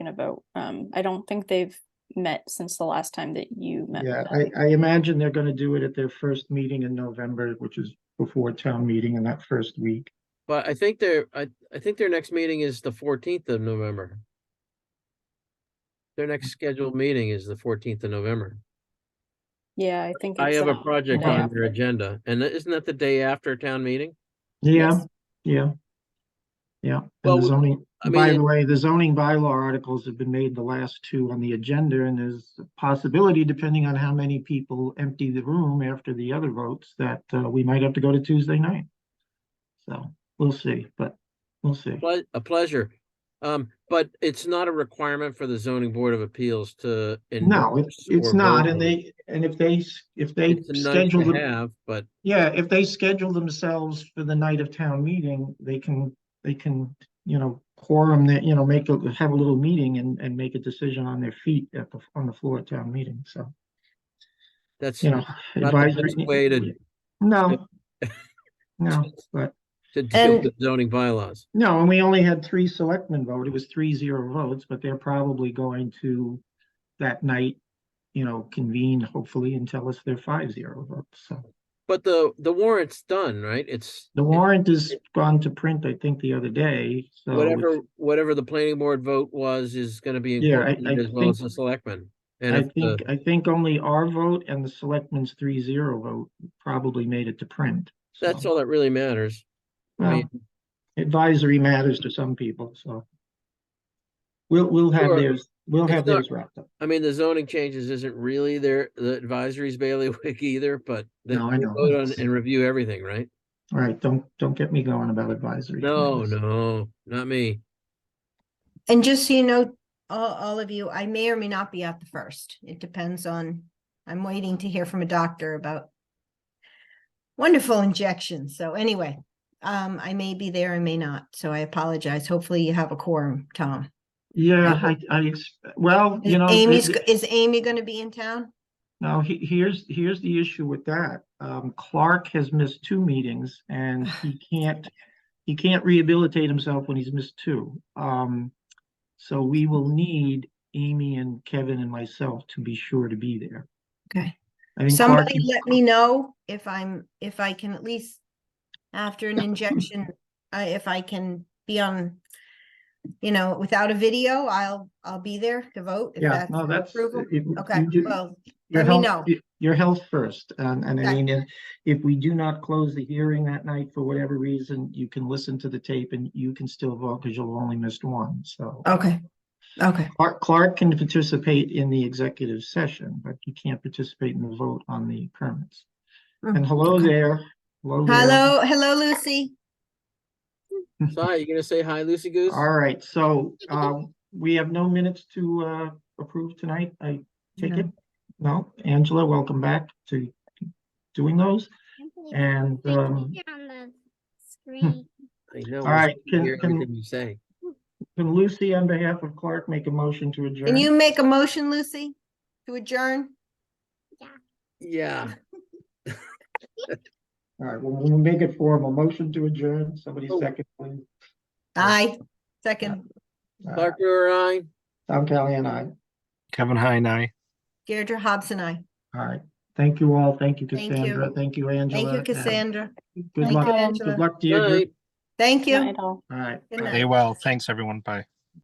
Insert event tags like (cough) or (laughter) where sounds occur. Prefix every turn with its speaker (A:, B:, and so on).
A: about. Um, I don't think they've met since the last time that you met.
B: Yeah,
A: Renata.
B: I, I imagine they're gonna do it at their first meeting in November, which is before town meeting in that first week.
C: But I think their, I, I think their next meeting is the fourteenth of November. Their next scheduled meeting is the fourteenth of November.
A: Yeah, I think.
C: I
A: it's um,
C: have a
A: that
C: project
A: day
C: on
A: after.
C: their agenda, and isn't that the day after town meeting?
B: Yeah,
A: Yes.
B: yeah. Yeah,
C: Well,
B: and the zoning,
C: I
B: by the
C: mean,
B: way, the zoning bylaw articles have been made the last two on the agenda, and there's a possibility, depending on how many people empty the room after the other votes, that, uh, we might have to go to Tuesday night. So, we'll see, but, we'll see.
C: ple- a pleasure. Um, but it's not a requirement for the zoning board of appeals to.
B: No, it's,
C: endorse
B: it's
C: or
B: not,
C: vote
B: and
C: on it.
B: they, and if they, s- if they
C: It's a nice
B: schedule
C: to
B: the
C: have, but
B: Yeah, if they schedule themselves for the night of town meeting, they can, they can, you know, quorum that, you know, make, a have a little meeting and, and make a decision on their feet at the, on the floor of town meeting, so,
C: that's
B: you know.
C: not the
B: advisory-
C: best way to,
B: No. No, but,
C: to deal with zoning bylaws.
B: no, and we only had three selectmen vote, it was three zero votes, but they're probably going to that night, you know, convene hopefully and tell us they're five zero votes, so.
C: But the, the warrant's done, right? It's.
B: The
C: it's-
B: warrant is gone to print, I think, the other day, so. it's-
C: Whatever, whatever the planning board vote was is gonna be
B: Yeah, I-
C: included
B: I
C: as well as the
B: think-
C: selectmen. And
B: I
C: if the,
B: think, I think only our vote and the selectmen's three zero vote probably made it to print.
C: that's
B: so,
C: all that really matters. I
B: well,
C: mean,
B: Advisory matters to some people, so. We'll, we'll have
C: Sure.
B: theirs, we'll
C: It's
B: have
C: not-
B: theirs wrapped up.
C: I mean, the zoning changes isn't really their, the advisory's bailiwick (laughs) either, but. they-
B: No, I
C: they
B: know.
C: Vote on
B: It's-
C: and review everything, right?
B: All right, don't, don't get me going about advisory.
C: No,
B: committees.
C: no, not me.
D: And just so you know, all, all of you, I may or may not be out the first. It depends on, I'm waiting to hear from a doctor about wonderful injections. So anyway, um, I may be there, I may not. So I apologize. Hopefully you have a quorum, Tom.
B: Yeah, I, I, ex- well,
D: Is
B: you know.
D: Amy's,
B: it-
D: go- is Amy gonna be in town?
B: Now, he, here's, here's the issue with that. Um, Clark has missed two meetings and he can't, he can't rehabilitate himself when he's missed two. Um, so we will need Amy and Kevin and myself to be sure to be there.
D: Okay.
B: I think Clark
D: Somebody
B: is-
D: let me know if I'm, if I can at least, after an injection, uh, if I can be on, you know, without a video, I'll, I'll be there to vote. if
B: Yeah, no,
D: your
B: that's.
D: approval.
B: it- you
D: Okay,
B: do-
D: well,
B: your
D: let me
B: health-
D: know.
B: y- Your health first, and, and I
D: Okay.
B: mean, if- if we do not close the hearing that night for whatever reason, you can listen to the tape and you can still vote because you'll only missed one, so.
D: okay, okay,
B: Clark, Clark can participate in the executive session, but he can't participate in the vote on the permits.
D: Mm,
B: And hello
D: okay.
B: there. Hello. there.
D: hello, hello, Lucy.
C: Sorry, you gonna say hi, Lucy Goose?
B: All right, so, um, we have no minutes to, uh, approve tonight, I take it? No, Angela, welcome back to doing those. And, um,
E: On the screen.
C: I know.
B: all
C: I
B: right,
C: can
B: can-
C: Hear
B: can-
C: everything you say.
B: Can Lucy, on behalf of Clark, make a motion to adjourn?
D: Can you make a motion, Lucy, to adjourn?
C: Yeah,
B: All right, well, we'll make it formal. Motion to adjourn. Somebody
C: Oh.
B: second, please.
D: Aye, second,
B: Uh,
C: Clark, you're on.
B: Tom Kelly and I.
F: Kevin Heine, aye.
D: Deirdre Hobson, I.
B: All right. Thank you all. Thank you,
D: Thank you.
B: Cassandra. Thank you, Angela.
D: Thank you,
B: and
D: Cassandra.
B: Good
A: Thank you,
B: luck.
A: Angela.
B: Good luck to you.
C: Night.
D: Thank
A: Good
D: you.
A: night all.
B: All right.
D: Good night.
F: They well. Thanks, everyone. Bye.